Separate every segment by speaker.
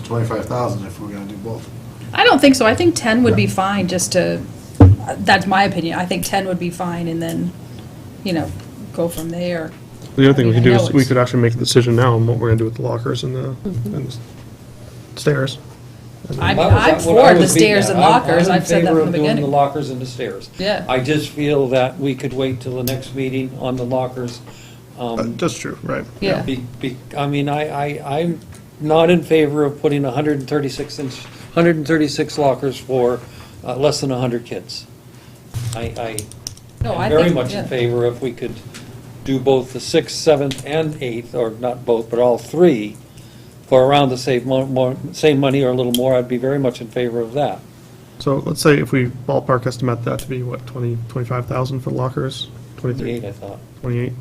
Speaker 1: twenty-five thousand if we're gonna do both.
Speaker 2: I don't think so. I think ten would be fine, just to, that's my opinion. I think ten would be fine, and then, you know, go from there.
Speaker 3: The other thing we
Speaker 2: I
Speaker 3: can
Speaker 2: mean,
Speaker 3: do
Speaker 2: I
Speaker 3: is,
Speaker 2: know
Speaker 3: we
Speaker 2: it's-
Speaker 3: could actually make a decision now on what we're gonna do with the lockers and the,
Speaker 4: Mm-hmm.
Speaker 3: and the stairs.
Speaker 2: I mean,
Speaker 4: That was-
Speaker 2: I'm
Speaker 4: that- what I
Speaker 2: for the
Speaker 4: was beating
Speaker 2: stairs
Speaker 4: at.
Speaker 2: and
Speaker 4: I'm-
Speaker 2: lockers. I've said that
Speaker 4: I'm in favor
Speaker 2: from
Speaker 4: of
Speaker 2: the
Speaker 4: doing the
Speaker 2: beginning.
Speaker 4: lockers and the stairs.
Speaker 2: Yeah.
Speaker 4: I just feel that we could wait till the next meeting on the lockers.
Speaker 3: Uh,
Speaker 4: um,
Speaker 3: That's true, right.
Speaker 2: Yeah.
Speaker 4: be- be- I mean, I, I, I'm not in favor of putting hundred and thirty-six inch, hundred and thirty-six lockers for uh, less than hundred kids. I, I
Speaker 2: No, I
Speaker 4: am very
Speaker 2: think-
Speaker 4: much
Speaker 2: yeah.
Speaker 4: in favor if we could do both the sixth, seventh, and eighth, or not both, but all three, for around the same, mo- more, same money or a little more, I'd be very much in favor of that.
Speaker 3: So let's say if we ballpark estimate that to be, what, 20, 25,0and for lockers?
Speaker 4: Twenty-eight,
Speaker 3: 23,
Speaker 4: I thought.
Speaker 3: 28?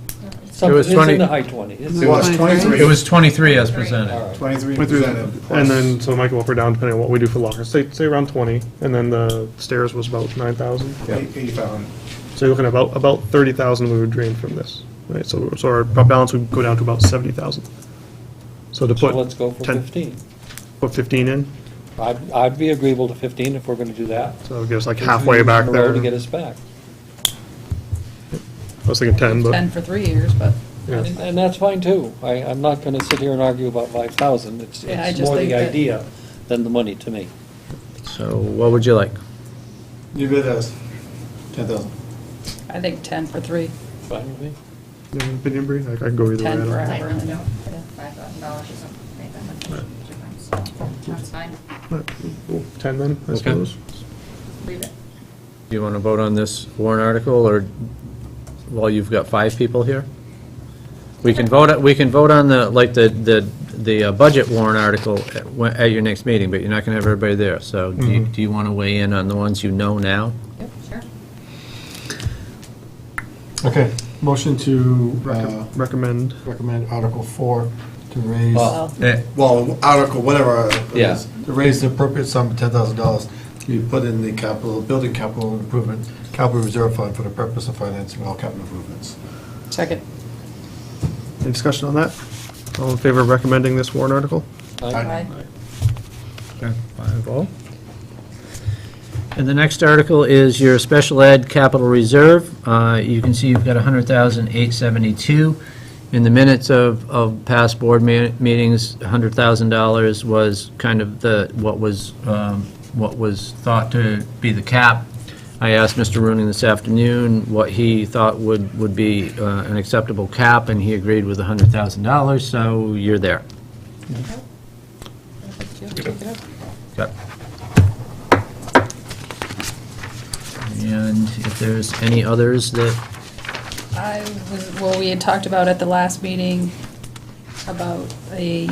Speaker 4: Something, it's in
Speaker 5: 20
Speaker 4: the high twenties.
Speaker 1: It was
Speaker 5: It
Speaker 1: twenty-three,
Speaker 5: was 23 as presented.
Speaker 1: twenty-three
Speaker 3: Twenty-three,
Speaker 1: presented.
Speaker 3: And then, so it might go up or down depending on what we do for lockers. Say, say around 20, and then the stairs was about 9,000.
Speaker 1: Eighty-five hundred.
Speaker 3: So you're looking at about, about 30,000 we would drain from this, right? So, so our balance would go down to about 70,000. So to
Speaker 4: So
Speaker 3: put.
Speaker 4: let's go for
Speaker 3: 10
Speaker 4: fifteen.
Speaker 3: Put 15 in,
Speaker 4: I'd, I'd be agreeable to fifteen if we're gonna do that.
Speaker 3: so it'll give us like
Speaker 4: Two
Speaker 3: halfway
Speaker 4: years
Speaker 3: back
Speaker 4: in a row
Speaker 3: there.
Speaker 4: To get us back.
Speaker 3: I was thinking 10, but.
Speaker 2: Ten for three years, but,
Speaker 3: yeah.
Speaker 4: And and that's fine too. I, I'm not gonna sit here and argue about five thousand. It's,
Speaker 2: Yeah, I
Speaker 4: it's
Speaker 2: just
Speaker 4: more
Speaker 2: think
Speaker 4: the
Speaker 2: that-
Speaker 4: idea than the money to me.
Speaker 5: So what would you like?
Speaker 1: You bid us ten thousand.
Speaker 2: I think ten for three,
Speaker 4: Fine with me.
Speaker 3: You have an Opinion, Bree? I I can go either way. I
Speaker 2: ten
Speaker 3: don't
Speaker 2: for
Speaker 3: know.
Speaker 2: however. and then-
Speaker 6: Five thousand dollars or something, make that much difference. That's fine,
Speaker 3: Alright, cool. 10 then, I
Speaker 5: Okay.
Speaker 3: suppose.
Speaker 6: leave it.
Speaker 5: Do you want to vote on this warrant article, or, well, you've got five people here? We can vote, we can vote on the, like, the, the, the uh, budget warrant article at when- at your next meeting, but you're not going to have everybody there, so do you-
Speaker 3: Mhm.
Speaker 5: do you want to weigh in on the ones you know now?
Speaker 6: Yep, sure.
Speaker 7: Okay, motion to uh,
Speaker 3: Recom- Recommend.
Speaker 7: recommend Article 4 to raise,
Speaker 2: Well-
Speaker 5: Eh,
Speaker 1: Well, article, whatever. it
Speaker 5: Yeah.
Speaker 1: is, To raise the appropriate sum of ten thousand dollars to be put in the capital, building capital improvement, capital reserve fund for the purpose of financing all capital improvements.
Speaker 2: Second.
Speaker 3: Any discussion on that? All in favor of recommending this warrant article?
Speaker 2: Aye.
Speaker 5: Okay, Five all. And the next article is your special ed capital reserve. Uh, You can see you've got 100,872. In the minutes of, of past board me- meetings, $100,000 was kind of the, what was, um, what was thought to be the cap. I asked Mr. Rooney this afternoon what he thought would, would be uh, an acceptable cap, and he agreed with $100,000, so you're there. Okay. And if there's any others that,
Speaker 2: I was, well, we had talked about at the last meeting about a,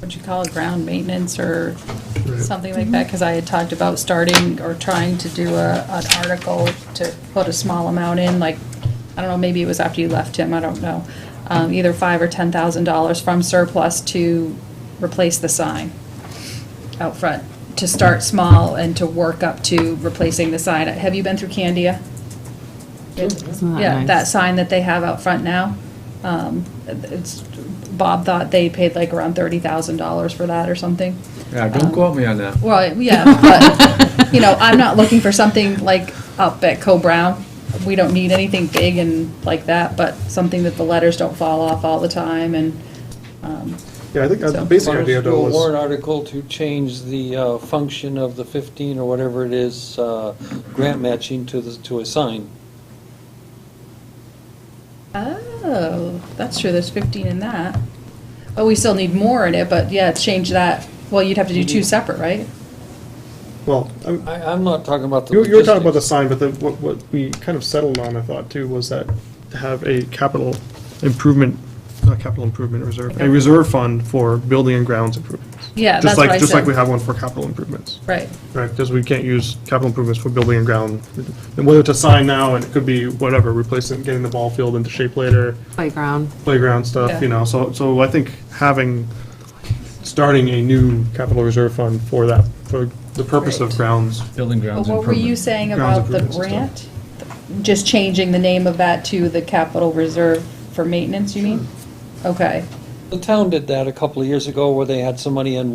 Speaker 2: what'd you call it, ground maintenance or something like that, because I had talked about starting or trying to do a, an article to put a small amount in, like, I don't know, maybe it was after you left, Tim, I don't know. Um, either five or ten thousand dollars from surplus to replace the sign out front, to start small and to work up to replacing the sign. Have you been through Candia?
Speaker 8: Isn't that
Speaker 2: Yeah,
Speaker 8: nice?
Speaker 2: that sign that they have out front now. Um, It's, Bob thought they paid like around thirty thousand dollars for that or something.
Speaker 5: yeah, don't quote me on that.
Speaker 2: Well, yeah, but, you know, I'm not looking for something like up at Co-Brown. We don't need anything big and like that, but something that the letters don't fall off all the time and, um,
Speaker 3: Yeah, I think uh, the
Speaker 2: So-
Speaker 3: basic idea though
Speaker 4: School warrant
Speaker 3: was,
Speaker 4: article to change the uh, function of the fifteen or whatever it is, uh, grant matching to the, to a sign.
Speaker 2: oh, that's true, there's fifteen in that. But we still need more in it, but yeah, change that. Well, you'd have to do two separate, right?
Speaker 3: well, I'm-
Speaker 4: I, I'm not talking about the
Speaker 3: you you were talking about the
Speaker 4: logistics.
Speaker 3: sign, but the, what, what we kind of settled on, I thought too, was that to have a capital improvement, not capital improvement reserve, a reserve fund for building and grounds improvements.
Speaker 2: Yeah,
Speaker 3: Just
Speaker 2: that's what
Speaker 3: like-
Speaker 2: I
Speaker 3: Just like
Speaker 2: said.
Speaker 3: we have one for capital improvements.
Speaker 2: Right.
Speaker 3: Right, because we can't use capital improvements for building and ground, and whether to sign now, and it could be whatever, replacing, getting the ball field into shape later,
Speaker 8: Playground.
Speaker 3: playground stuff, you
Speaker 2: Yeah.
Speaker 3: know, so, so I think having, starting a new capital reserve fund for that, for the purpose of
Speaker 2: Right.
Speaker 3: grounds.
Speaker 5: Building
Speaker 2: But
Speaker 5: grounds
Speaker 2: What were you
Speaker 5: improvement.
Speaker 2: saying
Speaker 3: Grounds
Speaker 2: about the
Speaker 3: improvements
Speaker 2: grant? Just changing the name of that to the capital reserve for maintenance, you mean? Okay.
Speaker 4: The town did that a couple of years ago where they had some money in